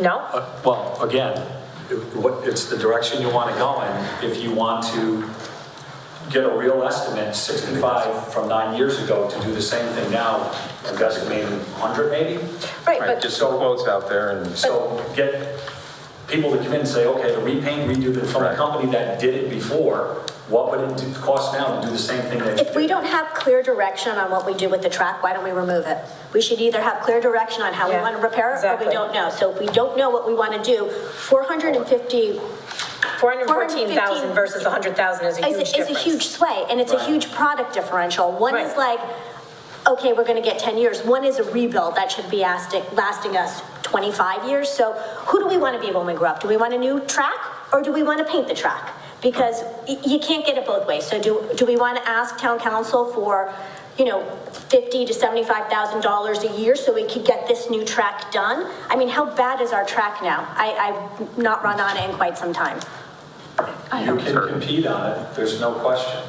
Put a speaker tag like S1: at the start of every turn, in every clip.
S1: No?
S2: Uh, Well, again, it- what- it's the direction you want to go in. If you want to get a real estimate, 65 from nine years ago, to do the same thing now, I'm guessing maybe 100 maybe?
S1: Right,
S3: Right,
S1: but,
S3: just some quotes out there and.
S2: So get people to come in and say, okay, to repaint, redo the, from a
S3: Right.
S2: company that did it before, what would it do- cost now to do the same thing that?
S4: If we don't have clear direction on what we do with the track, why don't we remove it? We should either have clear direction on how we
S1: Yeah,
S4: want to repair it, or
S1: exactly.
S4: we don't know. So if we don't know what we want to do, 450
S1: 414,000 versus 100,000 is a huge
S4: is,
S1: difference.
S4: is a huge sway, and it's a
S2: Right.
S4: huge product differential. One is
S1: Right.
S4: like, okay, we're gonna get ten years. One is a rebuild that should be lasting, lasting us twenty-five years. So who do we wanna be when we grow up? Do we want a new track, or do we wanna paint the track? Because y- you can't get it both ways. So do, do we wanna ask town council for, you know, fifty to seventy-five thousand dollars a year so we could get this new track done? I mean, how bad is our track now? I, I've not run on it in quite some time.
S2: You can compete on it, there's no question.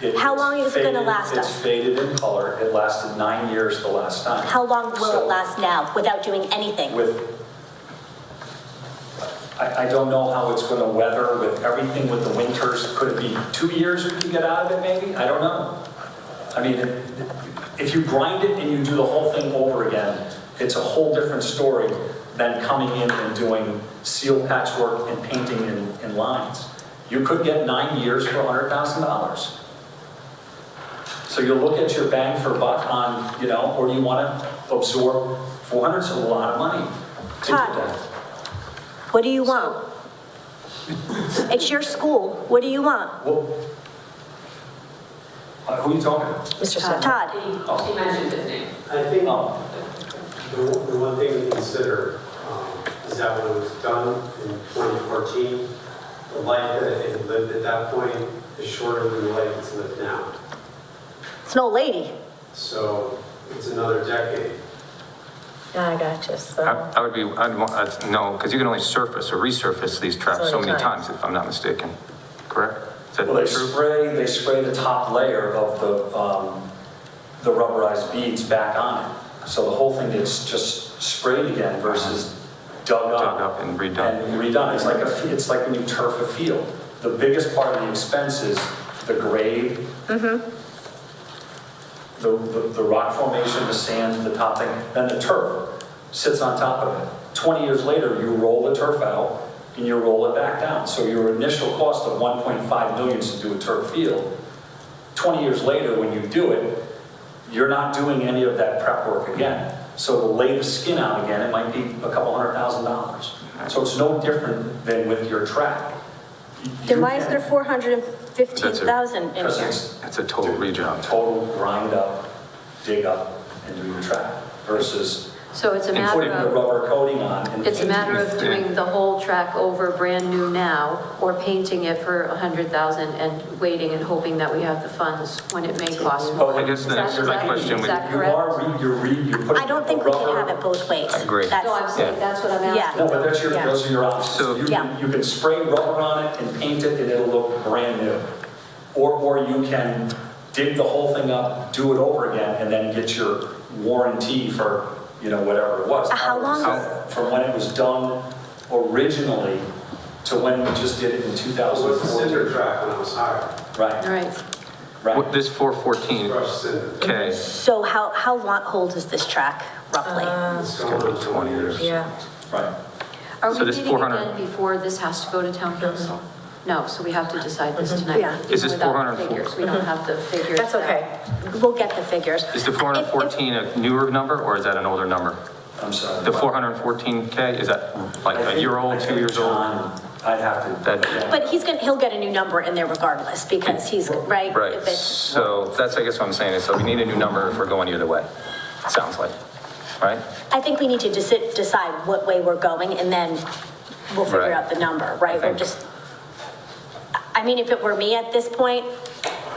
S2: It-
S4: How long
S2: it's
S4: is it gonna
S2: faded-
S4: last
S2: It's
S4: us?
S2: faded in color, it lasted nine years the last time.
S4: How long will
S2: So-
S4: it last now without doing anything?
S2: with, I, I don't know how it's gonna weather with everything with the winters. Could it be two years we can get out of it maybe? I don't know. I mean, if you grind it and you do the whole thing over again, it's a whole different story than coming in and doing seal patchwork and painting in, in lines. You could get nine years for hundred thousand dollars. So you look at your bang for buck on, you know, or do you want to absorb 400's a lot of money to do
S4: Todd.
S2: that?
S4: What do you want? It's your school. What do you want?
S2: Well, uh, Who are you talking to?
S1: Mr. Sutton.
S4: Todd?
S5: He he mentioned his name.
S6: I think um,
S2: Oh.
S6: the the one thing to consider um, is that when it was done in 2014, the life that it had lived at that point is shorter than the life it's lived now.
S4: It's an old lady.
S6: So it's another decade.
S1: I got you, so.
S3: I I would be, I'd, want- I'd- no, because you can only surface or resurface these traps
S1: So
S3: so
S1: many
S3: many
S1: times.
S3: times, if I'm not mistaken, correct? Is that
S2: Well, they
S3: true?
S2: spray, they spray the top layer of the, um, the rubberized beads back on it. So the whole thing gets just sprayed again versus dug up.
S3: Dug up and redone.
S2: And redone. It's like a, f- it's like when you turf a field. The biggest part of the expense is the grade. The, the, the rock formation, the sand, the top thing, then the turf sits on top of it. Twenty years later, you roll the turf out and you roll it back down. So your initial cost of one point five million to do a turf field, twenty years later, when you do it, you're not doing any of that prep work again. So to lay the skin out again, it might be a couple hundred thousand dollars. So it's no different than with your track.
S4: Then why is there 415,000 in
S2: Because
S4: here?
S2: it's
S3: It's a total rejob.
S2: total grind up, dig up, and do your track versus
S7: So it's a
S2: and
S7: matter
S2: putting the
S7: of,
S2: rubber coating on and
S7: it's a matter
S2: painting.
S7: of doing the whole track over brand new now or painting it for a hundred thousand and waiting and hoping that we have the funds when it may cost more.
S3: Well, I guess the
S7: Is that
S3: next- my
S7: correct?
S3: question
S7: Is
S3: would-
S7: that
S2: You
S7: correct?
S2: are, re- you're re, you're putting.
S4: I don't think we can
S2: rubber-
S4: have it both ways.
S3: I agree.
S4: That's-
S7: No, I'm saying, that's what I'm
S4: Yeah.
S7: asking.
S2: No, but that's your,
S4: Yeah.
S2: those are your options.
S3: So-
S2: You
S4: Yeah.
S2: can, you can spray rubber on it and paint it and it'll look brand new. Or, or you can dig the whole thing up, do it over again, and then get your warranty for, you know, whatever it was.
S4: Uh, how long
S3: is-
S2: From when it was done originally to when we just did it in
S6: That was the
S2: 2004.
S6: cinder track when I was hired,
S7: All
S2: Right,
S7: right.
S3: What-
S2: right.
S3: This 414,
S6: crushed cinder.
S3: okay,
S4: So how, how long old is this track roughly?
S7: Uh-huh.
S6: It's
S3: gotta
S6: going
S3: be
S6: on
S3: 20 years.
S1: Yeah.
S2: Right.
S7: Are
S3: So
S7: we
S3: this
S7: meeting
S3: 400
S7: again before this has to go to town council? No, so we have to decide this tonight.
S4: Yeah.
S7: even
S3: Is this
S7: without the
S3: 404?
S7: figures. We don't have the figures.
S1: Mm-hmm. That's
S7: now.
S1: okay.
S4: We'll get the figures.
S3: is the
S4: If- if-
S3: 414 a newer number or is that an older number?
S2: I'm sorry.
S3: The 414K, is that like
S2: I
S3: a
S2: think-
S3: year
S2: I
S3: old, two
S2: think
S3: years old?
S2: John, I'd have to.
S3: That-
S2: yeah.
S4: But he's gonna, he'll get a new number in there regardless because he's, right?
S3: Right,
S4: If it's-
S3: so that's, I guess what I'm saying is, so we need a new number if we're going either way, it sounds like, right?
S4: I think we need to deci- decide what way we're going, and then we'll
S3: Right.
S4: figure out the number, right?
S3: think-
S4: We're just, I mean, if it were me at this point,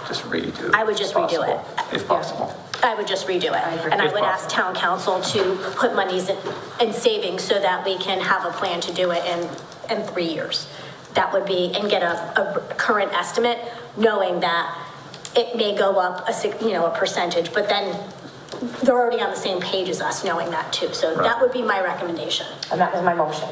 S3: Just redo.
S4: I would just
S3: if
S4: redo it.
S3: possible, If possible.
S4: I would just redo it.
S7: agree.
S4: And I
S3: If
S4: would ask
S3: possible.
S4: town council to put monies in, in savings so that we can have a plan to do it in, in three years. That would be, and get a, a current estimate, knowing that it may go up a, sig- you know, a percentage, but then they're already on the same page as us, knowing that too. So that would be my recommendation.
S1: And that was my motion.